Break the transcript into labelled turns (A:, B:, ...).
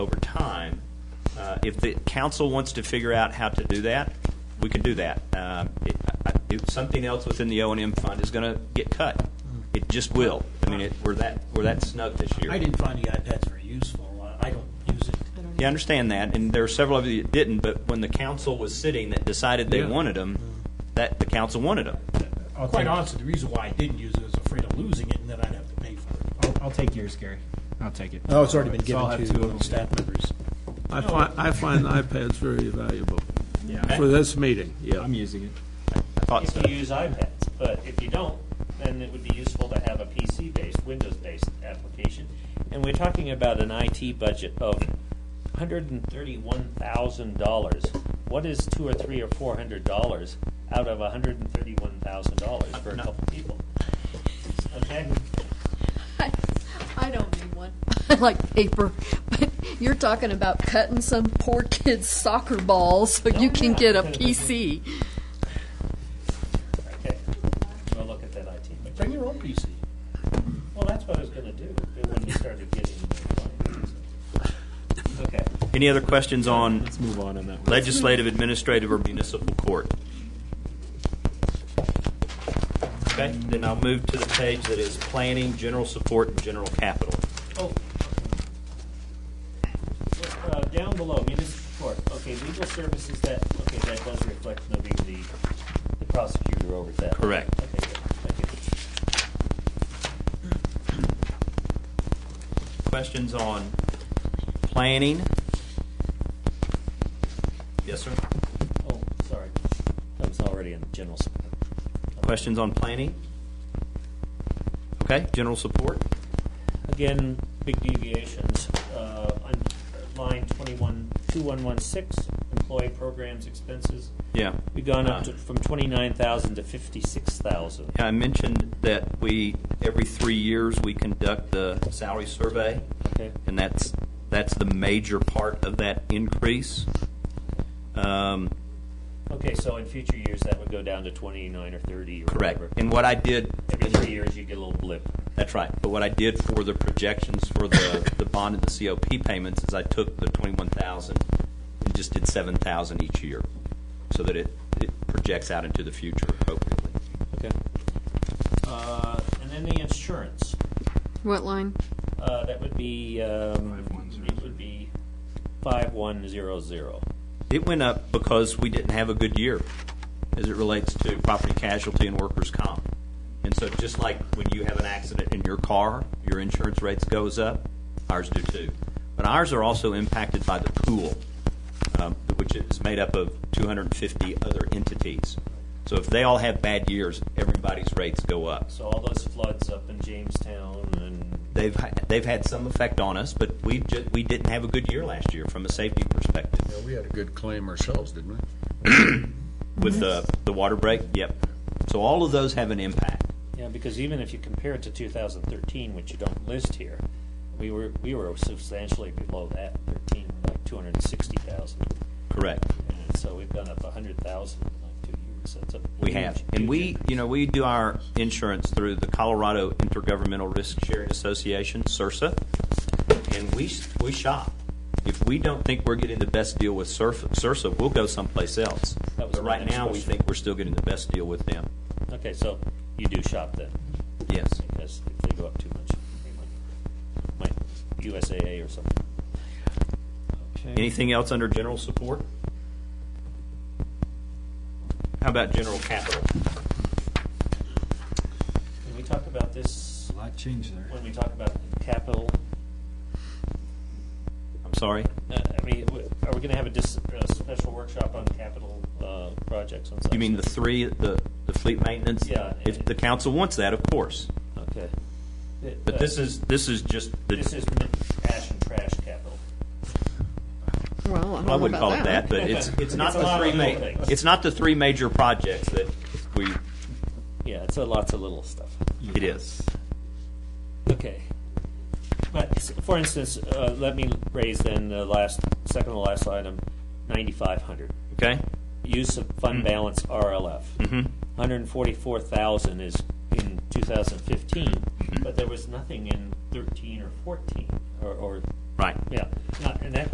A: uh, if the council wants to figure out how to do that, we can do that. Um, it- I- it- Something else within the O and M fund is going to get cut. It just will. I mean, it- we're that, we're that snug this year.
B: I didn't find the iPads very useful. I- I don't use it.
A: Yeah, I understand that, and there are several of you that didn't, but when the council was sitting that decided they
C: Yeah.
A: wanted them, that, the council wanted them.
C: I'll
B: Quite
C: take-
B: honestly, the reason why I didn't use it is afraid of losing it and then I'd have to pay for it.
C: I'll, I'll take yours, Gary. I'll take it.
B: Oh, it's already been
C: So I'll
B: given
C: have two of them.
B: to staff members.
D: I find, I find iPads very valuable for this meeting, yeah.
C: I'm using it.
A: I thought so.
E: if you use iPads. But if you don't, then it would be useful to have a PC-based, Windows-based application. And we're talking about an IT budget of $131,000. What is two or three or four hundred dollars out of $131,000 for a
A: No.
E: couple people? Okay,
F: I, I don't need one. I like paper, but you're talking about cutting some poor kid's soccer ball so you
A: Oh,
F: can get a PC.
E: okay. We'll look at that IT budget.
B: Bring your own PC.
E: Well, that's what I was gonna do when we started getting. Okay.
A: Any other questions on
C: Let's move on on that one.
A: legislative, administrative, or municipal court? Okay, then I'll move to the page that is planning, general support, and general capital.
E: Oh. Uh, down below, municipal court, okay, legal services, that, okay, that does reflect moving the, the prosecutor over to that. one.
A: Correct.
E: Okay, good, thank
A: Questions on planning? Yes, sir.
E: you. Oh, sorry, that was already in general support.
A: Questions on planning? Okay, general support?
E: Again, big deviations, uh, on line twenty-one, two-one-one-six, employee programs expenses.
A: Yeah. Uh,
E: We've gone up to, from twenty-nine thousand to fifty-six thousand.
A: I mentioned that we, every three years, we conduct the salary survey.
E: Okay.
A: And that's, that's the major part of that increase. Um,
E: Okay, so in future years, that would go down to twenty-nine or thirty or
A: Correct.
E: whatever.
A: And what I did,
E: Every three years, you get a little blip.
A: that's right, but what I did for the projections for the, the bond and the COP payments is I took the twenty-one thousand and just did seven thousand each year, so that it, it projects out into the future appropriately.
E: Okay. Uh, and then the insurance,
F: What line?
E: uh, that would be, um,
C: Five one zero
E: it would be five one zero zero.
A: It went up because we didn't have a good year as it relates to property casualty and workers' comp. And so just like when you have an accident in your car, your insurance rates goes up, ours do too. But ours are also impacted by the pool, um, which is made up of 250 other entities. So if they all have bad years, everybody's rates go up.
E: So all those floods up in Jamestown and,
A: They've, they've had some effect on us, but we've ju- we didn't have a good year last year from a safety perspective.
G: Yeah, we had a good claim ourselves, didn't we?
A: with the, the water break, yep. So all of those have an impact.
E: yeah, because even if you compare it to two thousand thirteen, which you don't list here, we were, we were substantially below that, thirteen, like two hundred and sixty thousand.
A: Correct.
E: And so we've gone up a hundred thousand in like two years, that's a.
A: We have.
E: huge,
A: And
E: huge
A: we,
E: increase.
A: you know, we do our insurance through the Colorado Intergovernmental Risk Sharing Association, CIRSA, and we, s- we shop. If we don't think we're getting the best deal with CIRF- CIRSA, we'll go someplace else.
E: That was
A: But
E: my
A: right
E: next
A: now, we
E: question.
A: think we're still getting the best deal with them.
E: Okay, so you do shop then,
A: Yes.
E: because if they go up too much, they might, might USAA or something.
A: Anything else under general support? How about general capital?
E: Can we talk about this
C: A lot changed there.
E: when we talk about capital?
A: I'm sorry?
E: Uh, I mean, w- are we gonna have a dis, a special workshop on capital, uh, projects on such?
A: You mean the three, the, the fleet maintenance?
E: Yeah.
A: If the council wants that, of course.
E: Okay.
A: But this is, this is just
E: This
A: the,
E: is ash and trash capital.
F: Well, I don't
A: I
F: know
A: wouldn't
F: about
A: call it that, but it's, it's not
E: It's a
A: the
E: lot
A: three
E: of
A: ma,
E: little things.
A: it's not the three major projects that we,
E: Yeah, it's a lots of little stuff.
A: it is.
E: Okay. But, s- for instance, uh, let me raise then the last, second to last item, ninety-five hundred.
A: Okay?
E: use of fund balance RLF. 144,000 is in 2015, but there was nothing in 13 or 14, or, or,
A: Right.
E: yeah, not, and that